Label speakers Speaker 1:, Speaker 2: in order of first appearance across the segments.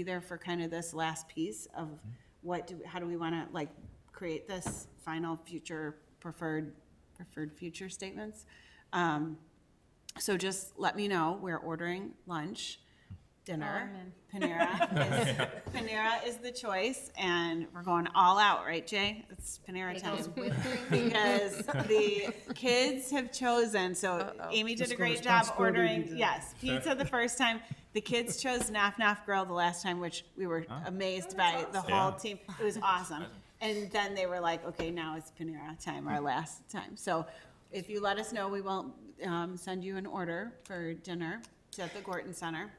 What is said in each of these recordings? Speaker 1: be there for kind of this last piece of what do, how do we want to like create this final future preferred, preferred future statements? Um, So just let me know, we're ordering lunch, dinner. Panera is, Panera is the choice and we're going all out, right, Jay? It's Panera time because the kids have chosen, so Amy did a great job ordering, yes, pizza the first time. The kids chose Knock Knock Grill the last time, which we were amazed by the whole
Speaker 2: Yeah.
Speaker 1: team. It was awesome. And then they were like, okay, now it's Panera time, our last time. So if you let us know, we will um, send you an order for dinner It's at the Gorton Center.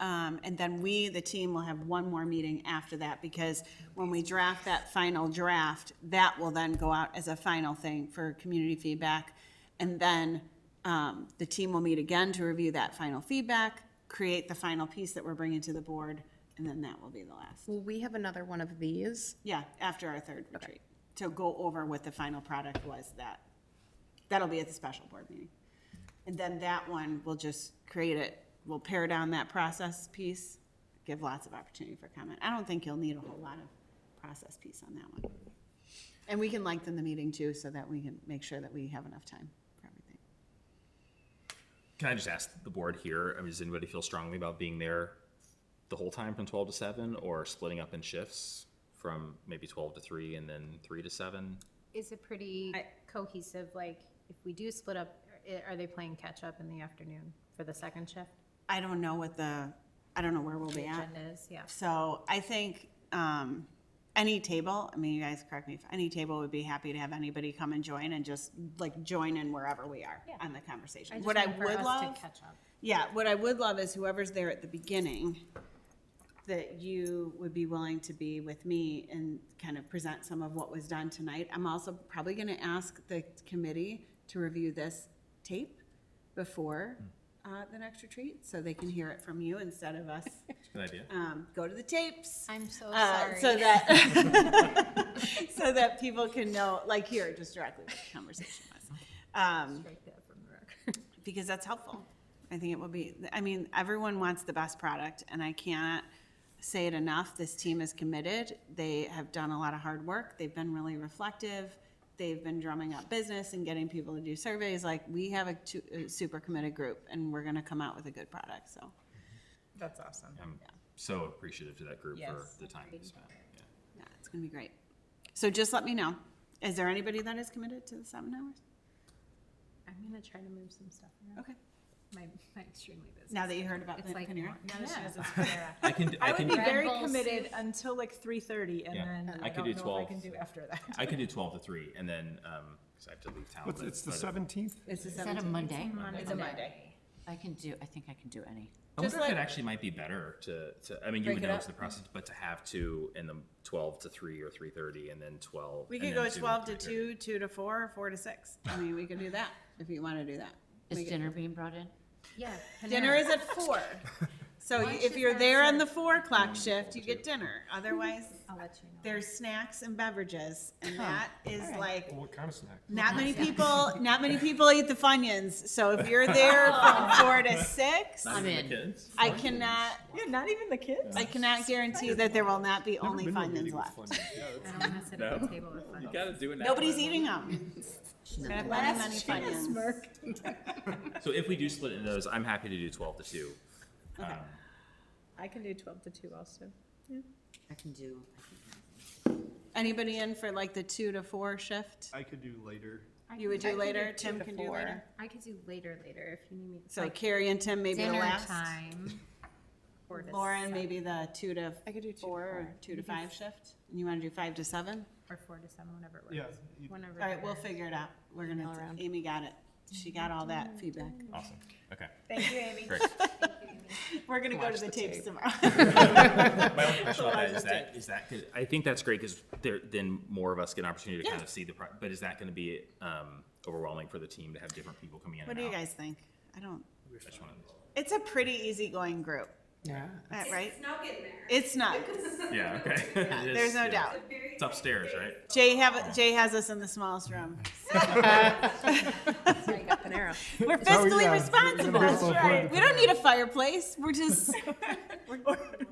Speaker 1: Um, and then we, the team, will have one more meeting after that, because when we draft that final draft, that will then go out as a final thing for community feedback. And then, um, the team will meet again to review that final feedback, create the final piece that we're bringing to the board, and then that will be the last.
Speaker 3: Will we have another one of these?
Speaker 1: Yeah, after our third retreat, to go over what the final product was that, that'll be at the special board meeting. And then that one, we'll just create it, we'll pare down that process piece, give lots of opportunity for comment. I don't think you'll need a whole lot of process piece on that one. And we can lengthen the meeting too, so that we can make sure that we have enough time for everything.
Speaker 2: Can I just ask the board here, I mean, does anybody feel strongly about being there the whole time from twelve to seven or splitting up in shifts from maybe twelve to three and then three to seven?
Speaker 4: Is it pretty
Speaker 1: I-
Speaker 4: cohesive, like, if we do split up, i- are they playing catch-up in the afternoon for the second shift?
Speaker 1: I don't know what the, I don't know where we'll
Speaker 4: The
Speaker 1: be at.
Speaker 4: agenda is, yeah.
Speaker 1: So I think um, any table, I mean, you guys correct me, if any table would be happy to have anybody come and join and just like join in wherever we are
Speaker 4: Yeah.
Speaker 1: on the conversation.
Speaker 4: just
Speaker 1: What I
Speaker 4: meant for
Speaker 1: would
Speaker 4: us to
Speaker 1: love,
Speaker 4: catch up.
Speaker 1: yeah, what I would love is whoever's there at the beginning, that you would be willing to be with me and kind of present some of what was done tonight. I'm also probably going to ask the committee to review this tape before uh, the next retreat, so they can hear it from you instead of us
Speaker 2: Good idea.
Speaker 1: um, go to the tapes.
Speaker 4: I'm so
Speaker 1: Uh,
Speaker 4: sorry.
Speaker 1: so that so that people can know, like here, just directly what the conversation was, um,
Speaker 4: Strike that from the record.
Speaker 1: because that's helpful. I think it will be. I mean, everyone wants the best product, and I cannot say it enough. This team is committed. They have done a lot of hard work. They've been really reflective. They've been drumming up business and getting people to do surveys. Like we have a, tu- a super committed group, and we're going to come out with a good product. So
Speaker 5: That's awesome.
Speaker 2: I'm so appreciative to that group for
Speaker 5: Yes.
Speaker 2: the time you spent. Yeah.
Speaker 1: yeah, it's going to be great. So just let me know. Is there anybody that is committed to the seven hours?
Speaker 4: I'm gonna try to move some stuff around.
Speaker 1: Okay.
Speaker 4: My, my extremely busy.
Speaker 1: Now that you heard about
Speaker 4: It's like,
Speaker 1: Panera.
Speaker 4: now that she
Speaker 5: Yeah.
Speaker 4: doesn't Panera.
Speaker 2: I can, I
Speaker 5: I would be
Speaker 2: can,
Speaker 4: Red
Speaker 5: very
Speaker 4: Bull
Speaker 5: committed
Speaker 4: soup.
Speaker 5: until like three thirty and
Speaker 2: Yeah.
Speaker 5: then
Speaker 2: I
Speaker 5: I
Speaker 2: could
Speaker 5: don't
Speaker 2: do
Speaker 5: know if I
Speaker 2: 12.
Speaker 5: can do after that.
Speaker 2: I can do twelve to three and then, um, cause I have to leave town.
Speaker 6: What's,
Speaker 2: but-
Speaker 6: it's the
Speaker 2: but-
Speaker 6: seventeenth?
Speaker 1: It's the
Speaker 7: Is that a
Speaker 1: seventeenth.
Speaker 7: Monday?
Speaker 4: It's a Monday.
Speaker 7: I can do, I think I can do any.
Speaker 2: I wonder
Speaker 1: Just
Speaker 2: if it
Speaker 1: like-
Speaker 2: actually might be better to, to, I mean, you
Speaker 1: Break
Speaker 2: would
Speaker 1: it
Speaker 2: know
Speaker 1: up.
Speaker 2: it's the process, but to have two and then twelve to three or three thirty and then twelve.
Speaker 1: We
Speaker 2: and
Speaker 1: could
Speaker 2: then
Speaker 1: go
Speaker 2: two and
Speaker 1: twelve to
Speaker 2: 3:30.
Speaker 1: two, two to four, or four to six. I mean, we could do that if you want to do that.
Speaker 7: Is
Speaker 1: We could-
Speaker 7: dinner being brought in?
Speaker 4: Yeah.
Speaker 1: Dinner is at four. So you- if you're there on the four o'clock shift, you get dinner. Otherwise,
Speaker 4: I'll let you know.
Speaker 1: there's snacks and beverages, and that is like,
Speaker 6: What kind of snack?
Speaker 1: not many people, not many people eat the Funyuns. So if you're there from four to six,
Speaker 7: I'm
Speaker 2: Even
Speaker 7: in.
Speaker 2: the kids?
Speaker 1: I cannot,
Speaker 5: Yeah, not even the kids?
Speaker 1: I cannot guarantee that there will not be only Funyuns left.
Speaker 4: I don't wanna sit at the table with fun.
Speaker 2: Gotta do it now.
Speaker 1: Nobody's eating them. Gonna have many, many Funyuns.
Speaker 2: So if we do split into those, I'm happy to do twelve to two. Um,
Speaker 5: I can do twelve to two also.
Speaker 7: I can do.
Speaker 1: Anybody in for like the two to four shift?
Speaker 6: I could do later.
Speaker 1: You would do later,
Speaker 5: two
Speaker 1: Tim
Speaker 5: to
Speaker 1: can do
Speaker 5: four.
Speaker 1: later.
Speaker 4: I could do later, later if you need me. It's
Speaker 1: So
Speaker 4: like
Speaker 1: Carrie and Tim maybe the
Speaker 4: Dinner
Speaker 1: last.
Speaker 4: time. Four to
Speaker 1: Lauren,
Speaker 4: seven-
Speaker 1: maybe the two to
Speaker 5: I could do two to
Speaker 1: four or
Speaker 5: four.
Speaker 1: two to five shift? And you want to do five to seven?
Speaker 4: Or four to seven, whenever it works.
Speaker 6: Yeah, you-
Speaker 4: Whenever.
Speaker 1: All right,
Speaker 4: it
Speaker 1: we'll
Speaker 4: works.
Speaker 1: figure it out. We're gonna, Amy got it. She got all that feedback.
Speaker 2: Awesome, okay.
Speaker 1: Thank you, Amy.
Speaker 2: Great.
Speaker 1: We're gonna go to the tapes tomorrow.
Speaker 2: My only question about that is that, is that, 'cause I think that's great, cause there, then more of us get an opportunity to kind
Speaker 1: Yeah.
Speaker 2: of see the, pro- but is that gonna be, um, overwhelming for the team to have different people coming in and
Speaker 1: What
Speaker 2: out?
Speaker 1: do you guys think? I don't,
Speaker 2: I just wanna-
Speaker 1: it's a pretty easygoing group,
Speaker 5: Yeah.
Speaker 1: uh, right? It's snug in there. It's snug.
Speaker 2: Yeah, okay. It is,
Speaker 1: There's no
Speaker 2: yeah.
Speaker 1: doubt.
Speaker 2: It's upstairs, right?
Speaker 1: Jay have, Jay has us in the smallest room. We're
Speaker 6: Oh,
Speaker 2: uh,
Speaker 1: fiscally
Speaker 6: yeah.
Speaker 1: responsible.
Speaker 6: That's right.
Speaker 1: We don't need a fireplace. We're just, we're,